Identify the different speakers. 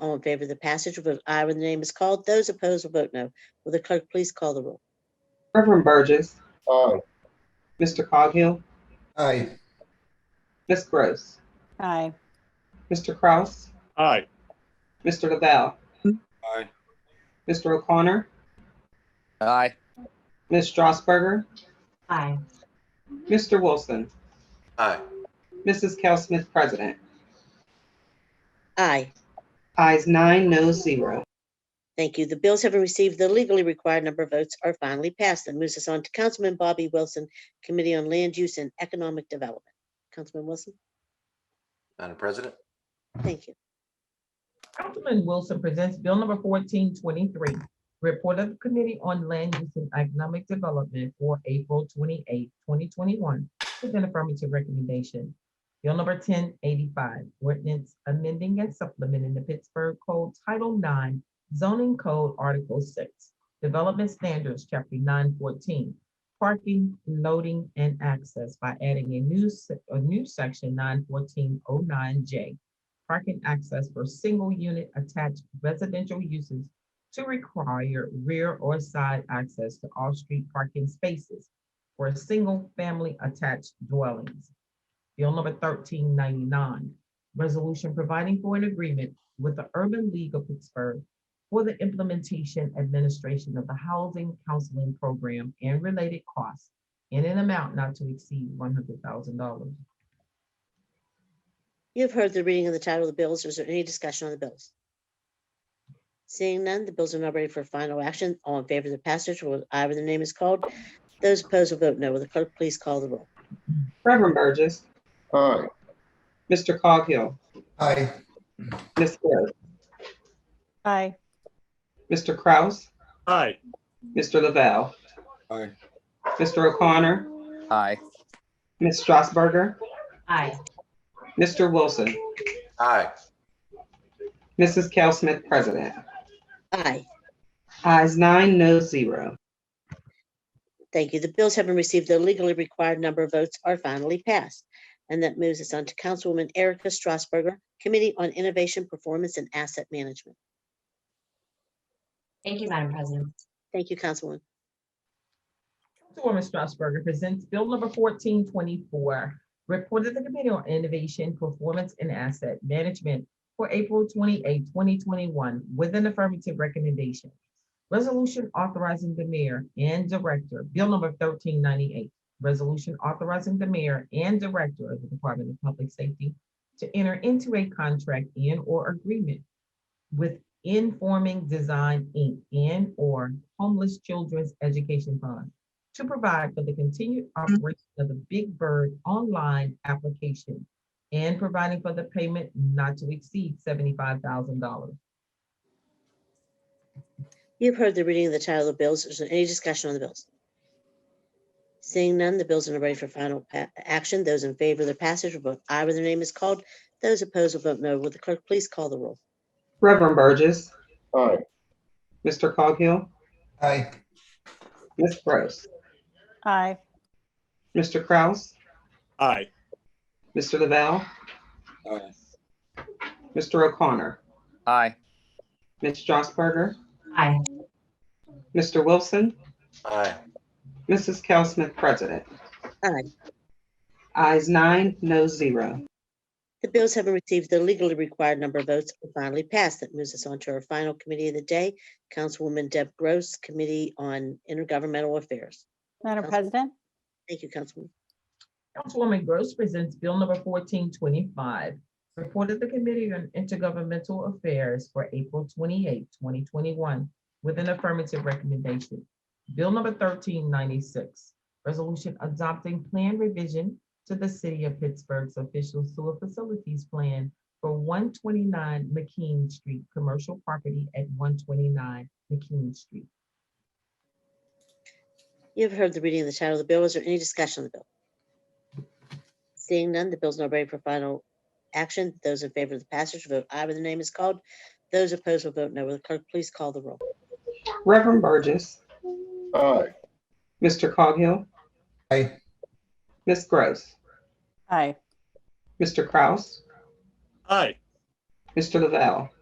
Speaker 1: All in favor of the passage will vote aye when the name is called. Those opposed will vote no. Will the clerk please call the roll?
Speaker 2: Reverend Burgess,
Speaker 3: Aye.
Speaker 2: Mr. Coghill,
Speaker 3: Aye.
Speaker 2: Ms. Gross,
Speaker 4: Aye.
Speaker 2: Mr. Kraus,
Speaker 3: Aye.
Speaker 2: Mr. Lavelle.
Speaker 3: Aye.
Speaker 2: Mr. O'Connor,
Speaker 5: Aye.
Speaker 2: Ms. Strasburger,
Speaker 6: aye,
Speaker 2: Mr. Wilson,
Speaker 3: Aye.
Speaker 2: Mrs. Cal Smith, President.
Speaker 1: Aye.
Speaker 2: Eyes nine, no zero.
Speaker 1: Thank you. The bills having received the legally required number of votes are finally passed. That moves us on to Councilman Bobby Wilson, Committee on Land Use and Economic Development. Councilman Wilson,
Speaker 7: Madam President,
Speaker 1: thank you.
Speaker 6: Councilman Wilson presents Bill number fourteen twenty-three, report of the Committee on Land Use and Economic Development for April 28, twenty twenty-one, with an affirmative recommendation. Bill number ten eighty-five, ordinance amending and supplementing the Pittsburgh Code Title Nine, zoning code Article Six, Development Standards, Chapter nine fourteen, parking, loading, and access by adding a new, se- a new section nine fourteen oh nine J, parking access for single unit attached residential uses to require rear or side access to off-street parking spaces for single family attached dwellings. Bill number thirteen ninety-nine, resolution providing for an agreement with the Urban League of Pittsburgh for the implementation administration of the Housing Counseling Program and related costs in an amount not to exceed one hundred thousand dollars.
Speaker 1: You have heard the reading of the title of the bills. Is there any discussion on the bills? Seeing none, the bills are now ready for final action. All in favor of the passage will vote aye when the name is called. Those opposed will vote no. Will the clerk please call the roll?
Speaker 2: Reverend Burgess,
Speaker 3: Aye.
Speaker 2: Mr. Coghill,
Speaker 3: Aye.
Speaker 2: Ms. Gross,
Speaker 4: Aye.
Speaker 2: Mr. Kraus,
Speaker 3: Aye.
Speaker 2: Mr. Lavelle.
Speaker 3: Aye.
Speaker 2: Mr. O'Connor,
Speaker 5: Aye.
Speaker 2: Ms. Strasburger,
Speaker 6: Aye.
Speaker 2: Mr. Wilson,
Speaker 7: aye.
Speaker 2: Mrs. Cal Smith, President.
Speaker 1: Aye.
Speaker 2: Eyes nine, no zero.
Speaker 1: Thank you. The bills having received the legally required number of votes are finally passed. And that moves us on to Councilwoman Erica Strasberger, Committee on Innovation, Performance, and Asset Management.
Speaker 8: Thank you, Madam President.
Speaker 1: Thank you, Councilwoman.
Speaker 6: Councilwoman Strasburger presents Bill number fourteen twenty-four, report of the Committee on Innovation, Performance, and Asset Management for April 28, twenty twenty-one, with an affirmative recommendation. Resolution authorizing the mayor and director, Bill number thirteen ninety-eight, resolution authorizing the mayor and director of the Department of Public Safety to enter into a contract and/or agreement with Informing Design, Inc., and/or Homeless Children's Education Fund to provide for the continued operation of the Big Bird online application and providing for the payment not to exceed seventy-five thousand dollars.
Speaker 1: You've heard the reading of the title of the bills. Is there any discussion on the bills? Seeing none, the bills are now ready for final pa- action. Those in favor of the passage will vote aye when their name is called. Those opposed will vote no. Will the clerk please call the roll?
Speaker 2: Reverend Burgess,
Speaker 3: Aye.
Speaker 2: Mr. Coghill,
Speaker 3: Aye.
Speaker 2: Ms. Gross,
Speaker 4: Aye.
Speaker 2: Mr. Kraus,
Speaker 3: Aye.
Speaker 2: Mr. Lavelle,
Speaker 3: Aye.
Speaker 2: Mr. O'Connor,
Speaker 5: Aye.
Speaker 2: Ms. Strasburger,
Speaker 8: Aye.
Speaker 2: Mr. Wilson,
Speaker 7: Aye.
Speaker 2: Mrs. Cal Smith, President.
Speaker 1: Aye.
Speaker 2: Eyes nine, no zero.
Speaker 1: The bills having received the legally required number of votes are finally passed. That moves us on to our final committee of the day, Councilwoman Deb Gross, Committee on Intergovernmental Affairs.
Speaker 4: Madam
Speaker 1: Council-
Speaker 4: President?
Speaker 1: Thank you, Councilwoman.
Speaker 6: Councilwoman Gross presents Bill number fourteen twenty-five, report of the Committee on Intergovernmental Affairs for April 28, twenty twenty-one, with an affirmative recommendation. Bill number thirteen ninety-six, resolution adopting plan revision to the City of Pittsburgh's official sewer facilities plan for one twenty-nine McKean Street, commercial property at one twenty-nine McKean Street.
Speaker 1: You have heard the reading of the title of the bill. Is there any discussion on the bill? Seeing none, the bill's now ready for final action. Those in favor of the passage vote aye when the name is called. Those opposed will vote no. Will the clerk please call the roll?
Speaker 2: Reverend Burgess,
Speaker 3: Aye.
Speaker 2: Mr. Coghill,
Speaker 3: Aye.
Speaker 2: Ms. Gross,
Speaker 4: Aye.
Speaker 2: Mr. Kraus,
Speaker 3: Aye.
Speaker 2: Mr. Lavelle,